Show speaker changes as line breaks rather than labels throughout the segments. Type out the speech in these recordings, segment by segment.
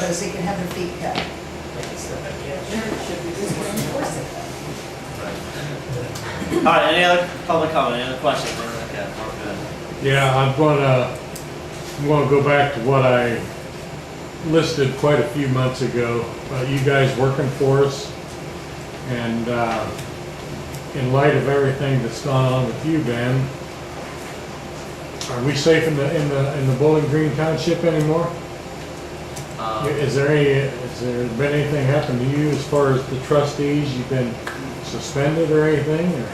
so they can have their feet cut.
All right, any other public comment, any other questions, anything like that? We're good.
Yeah, I'm gonna, I'm gonna go back to what I listed quite a few months ago, about you guys working for us. And, uh, in light of everything that's gone on with you, Ben, are we safe in the, in the, in the Bowling Green Township anymore?
Um,
Is there any, has there been anything happen to you as far as the trustees? You've been suspended or anything, or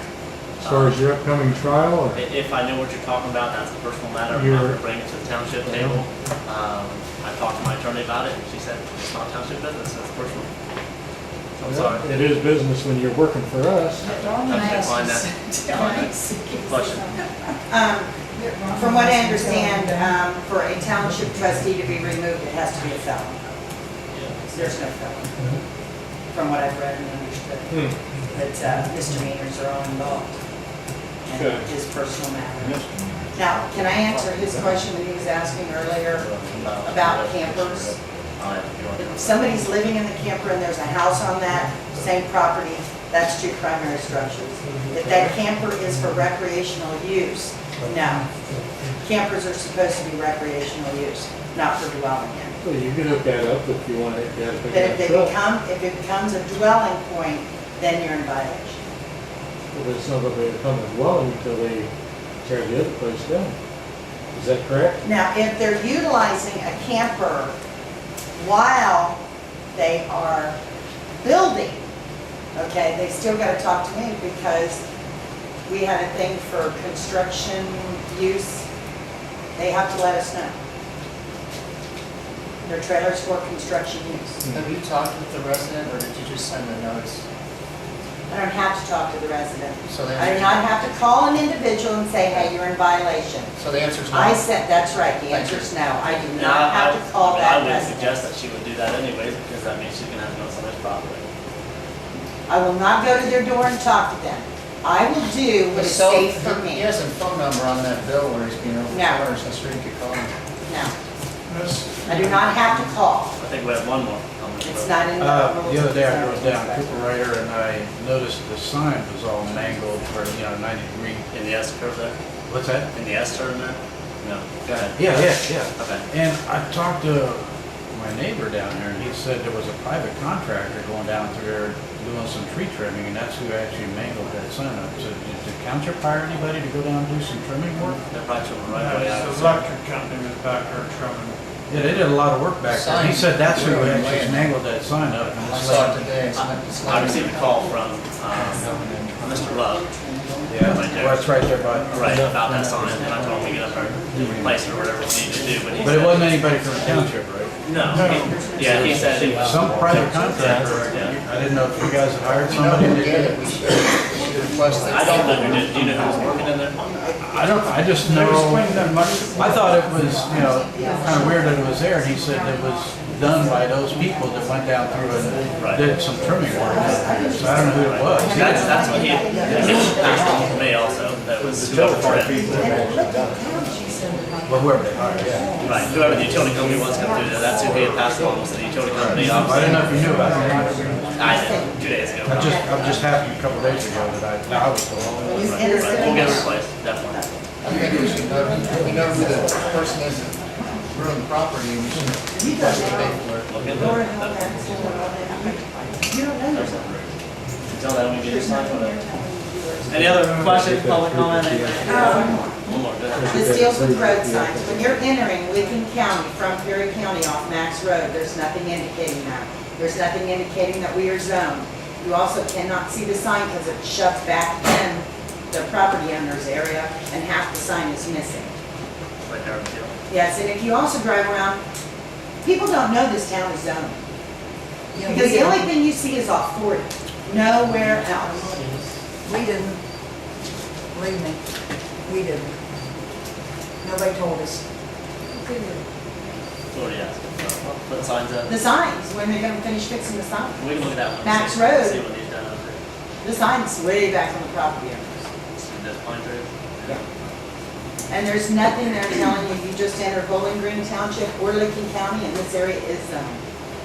as far as your upcoming trial, or?
i- If I know what you're talking about, that's a personal matter, I'm not
You're-
gonna bring it to the township table. Um, I talked to my attorney about it, and she said, it's not township business, it's personal. So I'm sorry.
It is business when you're working for us.
I'm gonna decline that. Question.
Um, From what I understand, um, for a township trustee to be removed, it has to be a felon. There's no felon, from what I've read and understood.
Hmm.
But uh, misdemeanors are all involved. And
Okay.
his personal matter. Now, can I answer his question that he was asking earlier about campers?
Uh, if you want to-
If somebody's living in the camper and there's a house on that same property, that's two primary structures. If that camper is for recreational use, no. Campers are supposed to be recreational use, not for dwelling in.
Well, you can hook that up if you want it, you gotta pick
But if they
it up.
become, if it becomes a dwelling point, then you're in violation.
But it's not gonna become a dwelling until they tear the other place down. Is that correct?
Now, if they're utilizing a camper while they are building, okay, they still gotta talk to me because we had a thing for construction use. They have to let us know. Their trailers for construction use.
Have you talked with the resident, or did you just send a notice?
I don't have to talk to the resident.
So the
I do
answer,
not have to call an individual and say, hey, you're in violation.
so the answer's no.
I said, that's right, the
Thank you.
answer's no. I do
And I-
not
I-
have to call
I mean,
that
I would
resident.
suggest that she would do that anyways, because that means she's gonna have to go on somebody's property.
I will not go to their door and talk to them. I will do what is
So,
safe for me.
He has a phone number on that bill where he's being over the
No.
counter, so sure you could call him.
No, I do not have to call.
I think we have one more. comment.
It's not in the
Uh,
rules.
The other day I drove
It's
down
not in the
Cooper Rider and I noticed the sign was all mangled for, you know, 90 degree.
In the S curve there,
What's that?
in the S turn there? No, go ahead.
Yeah, yeah, yeah.
Okay.
And I talked to my neighbor down there and he said there was a private contractor going down through there doing some tree trimming and that's who actually mangled that sign up. So did the township hire anybody to go down and do some trimming work?
They're probably children right
Yeah,
away.
It's the electric company was back there trimming.
Yeah, they did a lot of work back there.
Sign.
He said that's who
Yeah,
actually
man.
mangled that sign up. and
I
it's
saw it
like-
today, it's not, it's not.
I received a call from, um, Mr. Love,
Yeah,
Right there.
well, it's right there by.
right, about that sign, and I told him we get up there, and replace it or whatever we need to do, but he
But it
said,
wasn't anybody from the township, right?
no. he- Yeah, he said it was,
Some private contractor,
Yeah.
I didn't know if you guys had hired
If you don't
somebody. that
get
did
it, we should, we should request it.
I don't know, who did- do you know who was working in there?
I don't, I just know, I thought it was, you know, kind of weird that it was there, and he said it was done by those people that went down through
Right.
and did some trimming work. So I don't know who it was.
That's, that's what he, that's what he also, that was whoever trimmed.
Well, whoever they hired, yeah.
Right, whoever the utility company was gonna do that, that's who he had passed along, was the utility company
I didn't
officer.
know if you knew about that.
I did, two days ago.
I just, I'm just happy a couple days ago that I, I was the only one.
rules.
Right,
It is-
right, We'll get it replaced, definitely.
I think we should know, we know who the person is that ruined the property, and we should request it for it.
Look at
Lord,
that.
how that's going on. You don't know.
There's something. Tell that when we get inside, whatever. Any other questions, public comment?
Um,
One more, go ahead.
This deals with road signs. When you're entering Lincoln County from Perry County off Max Road, there's nothing indicating that. There's nothing indicating that we are zoned. You also cannot see the sign because it shuts back in the property owner's area and half the sign is missing.
Right there, deal.
Yes, and if you also drive around, people don't know this town is zoned. Because the only thing you see is off 40, nowhere else.
We didn't, believe me, we didn't. Nobody told us.
It's already asked. So, Put signs up.
The signs, when they're gonna finish fixing the sign.
We can look at that one.
Max
See-
Road.
See what he's done over there.
The sign's way back on the property owners.
Those pine trees.
And there's nothing there telling you, you just enter Bowling Green Township or Licking County and this area is zoned.